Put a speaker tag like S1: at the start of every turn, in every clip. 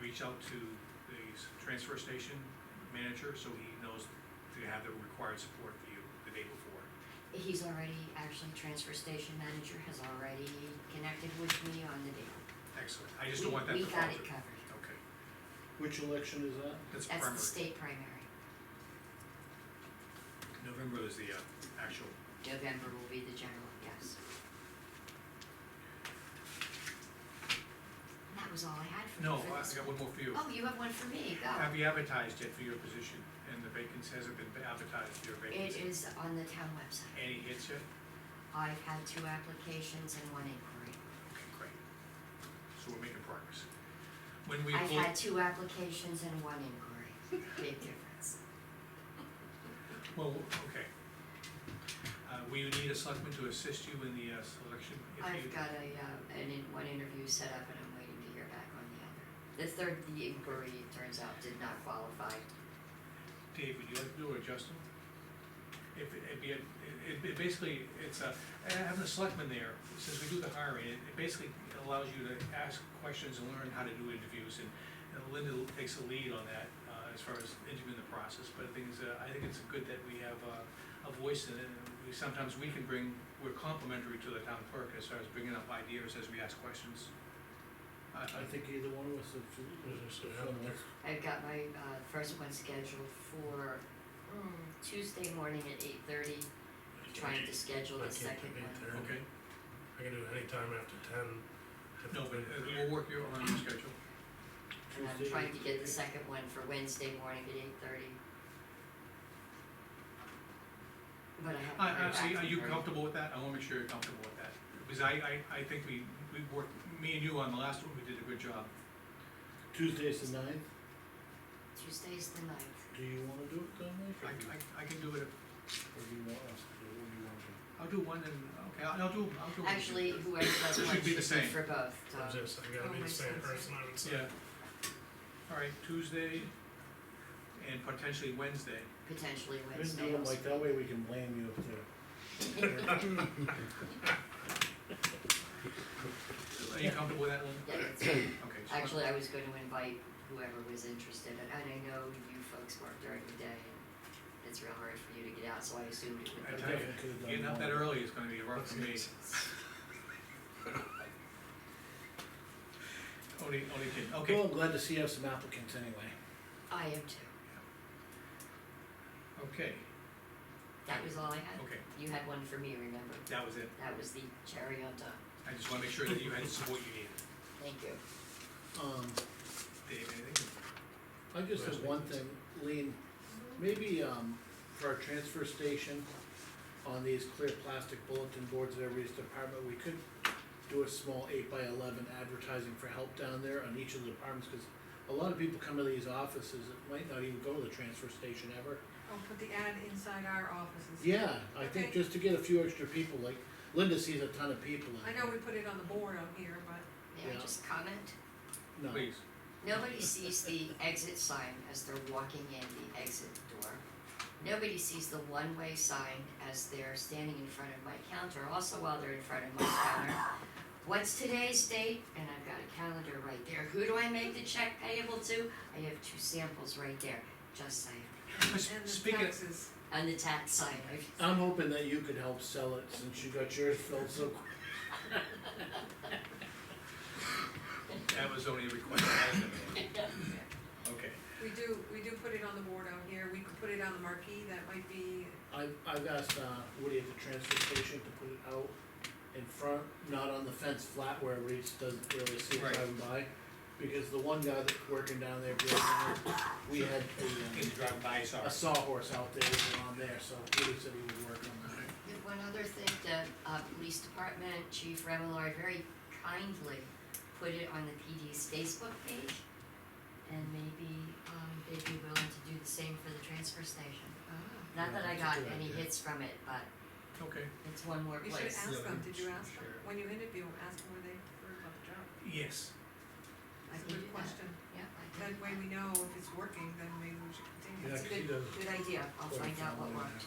S1: reach out to the s- transfer station manager, so he knows to have the required support for you the day before.
S2: He's already, actually, transfer station manager has already connected with me on the deal.
S1: Excellent, I just don't want that
S2: We-
S1: to fall
S2: We got it
S1: through.
S2: covered.
S1: Okay,
S3: Which election is that?
S1: that's
S2: That's the
S1: primary.
S2: state primary.
S1: November is the uh, actual,
S2: November will be the general, yes. And That was all I had for you
S1: no,
S2: for
S1: I
S2: this
S1: got
S2: one.
S1: one more for you.
S2: Oh, you have one for me,
S1: Have
S2: go.
S1: you advertised yet for your position, and the vacancy, hasn't been advertised, your
S2: It
S1: vacancy?
S2: is on the town website.
S1: Any hits yet?
S2: I've had two applications and one inquiry.
S1: Okay, great. So we're making progress. When we
S2: I've
S1: vote,
S2: had two applications and one inquiry, big difference.
S1: well, okay. Uh, will you need a selectman to assist you in the uh, selection? if you-
S2: I've got a, uh, an, in- one interview set up and I'm waiting to hear back on the other. The third, the inquiry, it turns out, did not qualify.
S1: Dave, would you like to do it, or Justin? If, it'd be, a- it, it basically, it's a, having a selectman there, since we do the hiring, it it basically allows you to ask questions and learn how to do interviews, and and Linda takes the lead on that, uh, as far as interviewing the process, but the thing is, uh, I think it's good that we have uh, a voice in it, and we, sometimes we can bring, we're complimentary to the town clerk as far as bringing up ideas as we ask questions. I- I
S3: I
S1: think,
S3: think either one of us have. Well,
S2: I've got my, uh, first one scheduled for mm, Tuesday morning at eight thirty, trying to schedule
S4: I
S2: the
S4: can't do
S2: second
S4: eight
S2: one.
S4: thirty.
S1: okay,
S4: I can do it anytime after ten.
S1: no, but uh, we'll work your, on your schedule.
S2: And I'm
S3: Tuesday.
S2: trying to get the second one for Wednesday morning at eight thirty. But I have.
S1: I,
S2: to hear
S1: I, see,
S2: back
S1: Uh, are you
S2: from her.
S1: comfortable with that? I wanna make sure you're comfortable with that, because I, I, I think we, we worked, me and you on the last one, we did a good job.
S3: Tuesday's the ninth,
S2: Tuesday's the ninth.
S3: do you wanna do it that night?
S1: I,
S3: Or do you-
S1: I, I can do it,
S3: Or do you want us to do it, what do you want to do?
S1: I'll do one and, okay, I'll I'll do, I'll do one.
S2: Actually, whoever does
S1: It
S2: one
S1: should
S2: should
S1: be
S2: be
S1: the same.
S2: for both, so.
S4: I'm just, I
S2: Oh,
S4: gotta be
S2: my
S4: the same
S2: son's-
S4: person, I would say.
S1: Yeah. All right, Tuesday and potentially Wednesday.
S2: potentially
S3: We can
S2: Wednesday
S3: do it
S2: also.
S3: like, that way we can blame you if they're,
S1: Are you comfortable with that, Lynn?
S2: Yeah, that's right.
S1: Okay. so-
S2: Actually, I was gonna invite whoever was interested, and and I know you folks work during the day, and it's real hard for you to get out, so I assumed it
S1: I
S2: would
S1: tell
S2: be.
S1: you,
S3: definitely could've done
S1: Getting up that
S3: one.
S1: early is gonna be rough for me. Only, only kidding, okay.
S3: well, I'm glad to see you have some applicants anyway.
S2: I am too,
S1: Okay,
S2: that was all I had,
S1: okay,
S2: you had one for me, remember,
S1: that was it.
S2: that was the cherry on top,
S1: I just wanna make sure that you had the support you needed.
S2: thank you.
S3: Um,
S1: Dave, anything?
S3: I just have one thing, Lean, maybe, um, for our transfer station, on these clear plastic bulletin boards at every department, we could do a small eight by eleven advertising for help down there on each of the departments, cause a lot of people come to these offices that might not even go to the transfer station ever.
S5: I'll put the ad inside our offices.
S3: Yeah, I think
S5: Okay.
S3: just to get a few extra people, like Linda sees a ton of people
S5: I
S3: in.
S5: know we put it on the board out here, but
S2: May I
S3: Yeah.
S2: just comment?
S3: No,
S1: Please.
S2: Nobody sees the exit sign as they're walking in the exit door. Nobody sees the one-way sign as they're standing in front of my counter, also while they're in front of my counter. What's today's date? And I've got a calendar right there. Who do I make the check payable to? I have two samples right there, just saying.
S1: But
S5: and the
S1: Speaking, of-
S5: taxes.
S2: And the tax sign, I've-
S3: I'm hoping that you could help sell it since you got yours filled so quick.
S1: that was only a request I had to make. Okay,
S5: We do, we do put it on the board out here, we could put it on the marquee, that might be,
S3: I've, I've asked, uh, Woody at the transfer station to put it out in front, not on the fence flat where everybody just doesn't really see it
S1: Right.
S3: driving by. Because the one guy that's working down there, the other night, we had
S1: can
S3: a,
S1: you drive by,
S3: um,
S1: sorry.
S3: a sawhorse out there that was on there, so Woody said he would work on that.
S2: And One other thing, the uh, police department, Chief Remillard very kindly put it on the PD's Facebook page. And maybe um, they'd be willing to do the same for the transfer station.
S5: ah,
S2: Not that I got
S3: Yeah, that's a good
S2: any
S3: idea.
S2: hits from it, but
S1: Okay,
S2: it's one more
S5: you should
S2: place.
S5: ask them, did you ask them?
S1: Sure.
S5: When you interview them, ask them where they heard about the job.
S1: yes,
S2: I
S5: That's
S2: can do
S5: a good
S2: that.
S5: question.
S2: Yeah, I
S5: That
S2: can.
S5: way we know if it's working, then maybe we should continue.
S3: Yeah,
S2: It's a
S3: 'cause he
S2: good,
S3: does-
S2: good idea. I'll
S3: Put it
S2: find out what
S3: somewhere.
S2: worked.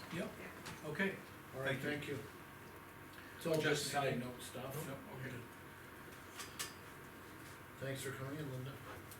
S1: okay.
S3: Alright,
S1: Thank you.
S3: thank you. It's all
S1: Just
S3: just side
S1: saying.
S3: note stuff.
S1: No, okay.
S3: Thanks for coming in, Linda.